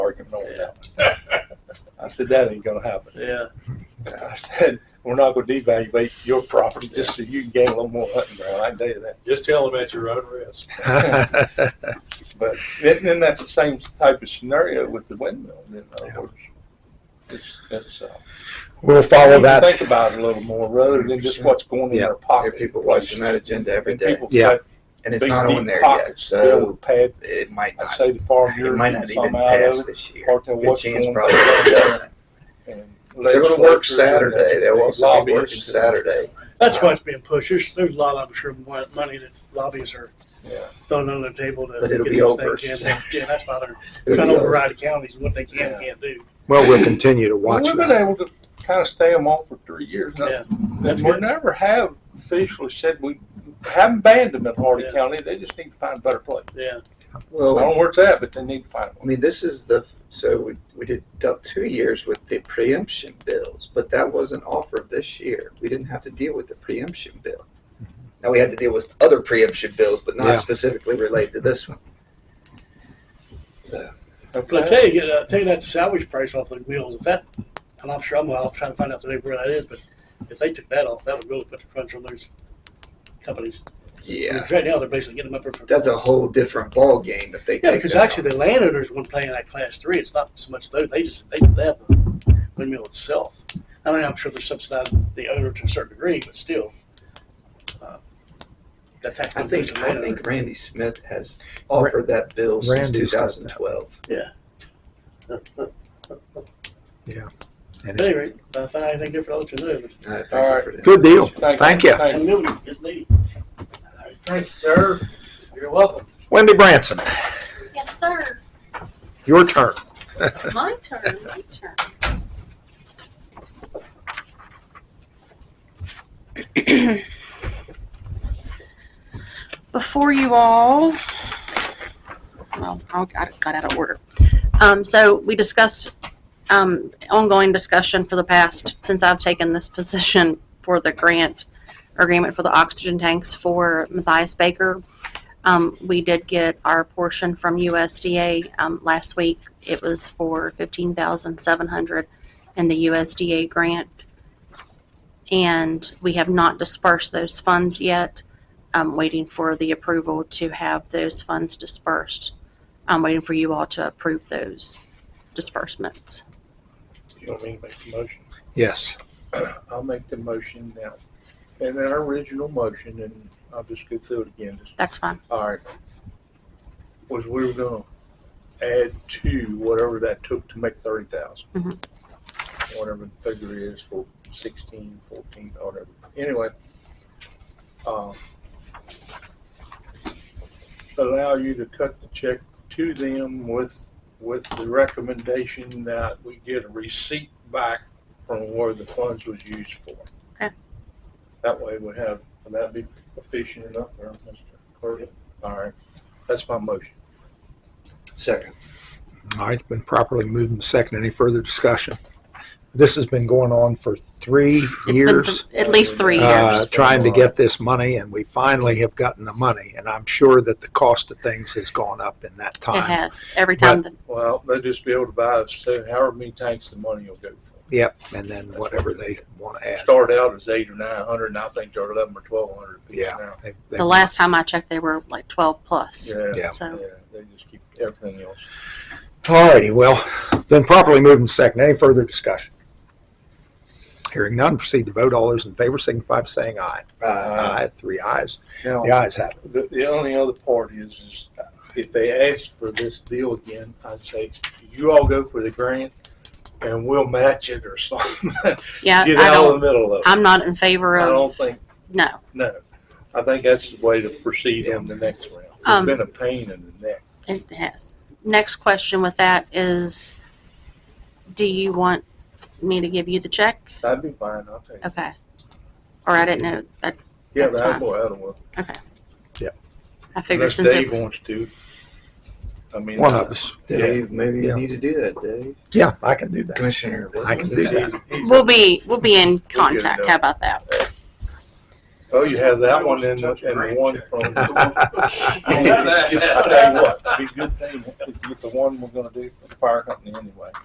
argument over that one. I said, that ain't gonna happen. Yeah. I said, we're not gonna devaluate your property just so you can gain a little more hunting ground. I can tell you that. Just tell them at your own risk. But then, then that's the same type of scenario with the windmill, you know. It's, it's, uh, We'll you follow need to that. Think about it a little more rather than just what's going in Yeah. their There pocket. are people watching that agenda every And day, people's Yeah. got and it's big, not deep on there yet. pockets filled So with pad- it might I not. say the farm It bureau might not gets even some out of pass it. this year. Part of Good what's chance going probably on. doesn't. and They're going to legislatures work and Saturday. They'll the also be working lobbyists and- Saturday. That's why it's being pushed. There's, there's a lot of, I'm sure, mo- money that lobbyies are Yeah. throwing on the table to. But get it'll be these over. things in. Yeah, that's why they're It'll trying be to over. override the counties, what they can, and can't do. Well, we'll continue to watch We've been that. able to kind of stay them off for three years. now. Yeah, And we never have officially said we haven't banned them in Hardy Yeah. County. They just need to find a better place. Yeah, I Well, don't know where it's at, but they need to find I one. mean, this is the so we, we did dealt two years with the preemption bills, but that wasn't offered this year. We didn't have to deal with the preemption bill. Now we had to deal with other preemption bills, but not Yeah. specifically related to this one. So but I tell you, I tell you that salvage price off the wheels, if that, and I'm sure I'm, I'll try to find out today where that is, but if they took that off, that would really put the crunch on those companies. yeah, Right now, they're basically getting them up for. that's a whole different ball game if they Yeah, take because that actually the landowners when playing that class three, it's not so much those, they just, they, they have the windmill itself. I mean, I'm sure they're subsidizing the owner to a certain degree, but still. uh, That tax. I think benefits I the think Randy Smith has offered that bill since Randy's got that. 2012. landowner. And At any rate, if I find anything different, I'll let you know, but All right, thank All you right. for that. Good deal. Thank you. And Milton is needy. Thank you, sir. You're welcome. Wendy Branson, Yes, sir. your turn. My turn. My turn. Before you all, well, I got, got out of order. Um, so we discussed um, ongoing discussion for the past since I've taken this position for the grant agreement for the oxygen tanks for Matthias Baker. Um, we did get our portion from USDA um, last week. It was for fifteen thousand seven hundred in the USDA grant, and we have not dispersed those funds yet. I'm waiting for the approval to have those funds dispersed. I'm waiting for you all to approve those disbursements. You want me to make the motion? Yes. I'll make the motion now. And then our original motion, and I'll just go through it again. Just- That's fine. All right. Was we were gonna add to whatever that took to make thirty thousand. Whatever the figure is for sixteen, fourteen, or whatever. Anyway. um, Allow you to cut the check to them with, with the recommendation that we get a receipt back from where the funds was used for. Okay. That way we have, would that be efficient enough there, Mr. Clerk? All right, that's my motion. Second. All right, it's been properly moved and seconded. Any further discussion? This has been going on for three It's been years. th- at least three uh, years. trying to get this money, and we finally have gotten the money. And I'm sure that the cost of things has gone up in that It time. has every time. that Well, they'll just be able to buy us, uh, however many tanks the money will go for. Yep, and then whatever they want to add. Start out as eight or nine hundred, and I think they're eleven or twelve hundred people Yeah. now. They- they- the last time I checked, they were like twelve plus. Yeah, Yeah. So. yeah, they just keep everything else. All righty, well, then properly moved and seconded. Any further discussion? Hearing none, proceed to vote. All those in favor signify by saying aye. Aye. Three ayes. Now, The ayes have it. the, the only other part is, is if they ask for this deal again, I'd say, you all go for the grant, and we'll match it or something. Yeah, Get I out don't. of the middle of it. I'm not in favor I of don't think, no. no. I think that's the way to proceed on the next round. It's Um, been a pain in the neck. It has. Next question with that is, do you want me to give you the check? That'd be fine, I'll take it. Okay. Or I didn't know, I, Yeah, that's that fine. will, that'll work. I figured Unless since Dave it, wants to. I mean. One of us. Dave, maybe Yeah. you need to do that, Dave. Yeah, I can do that. Commissioner, I can do that. he's- he's- we'll be, we'll be in We'll get it contact, done. how about that? Oh, you have that one and, and the one from. I tell you what, it'd be a good thing if you get the one we're gonna do for the fire company anyway.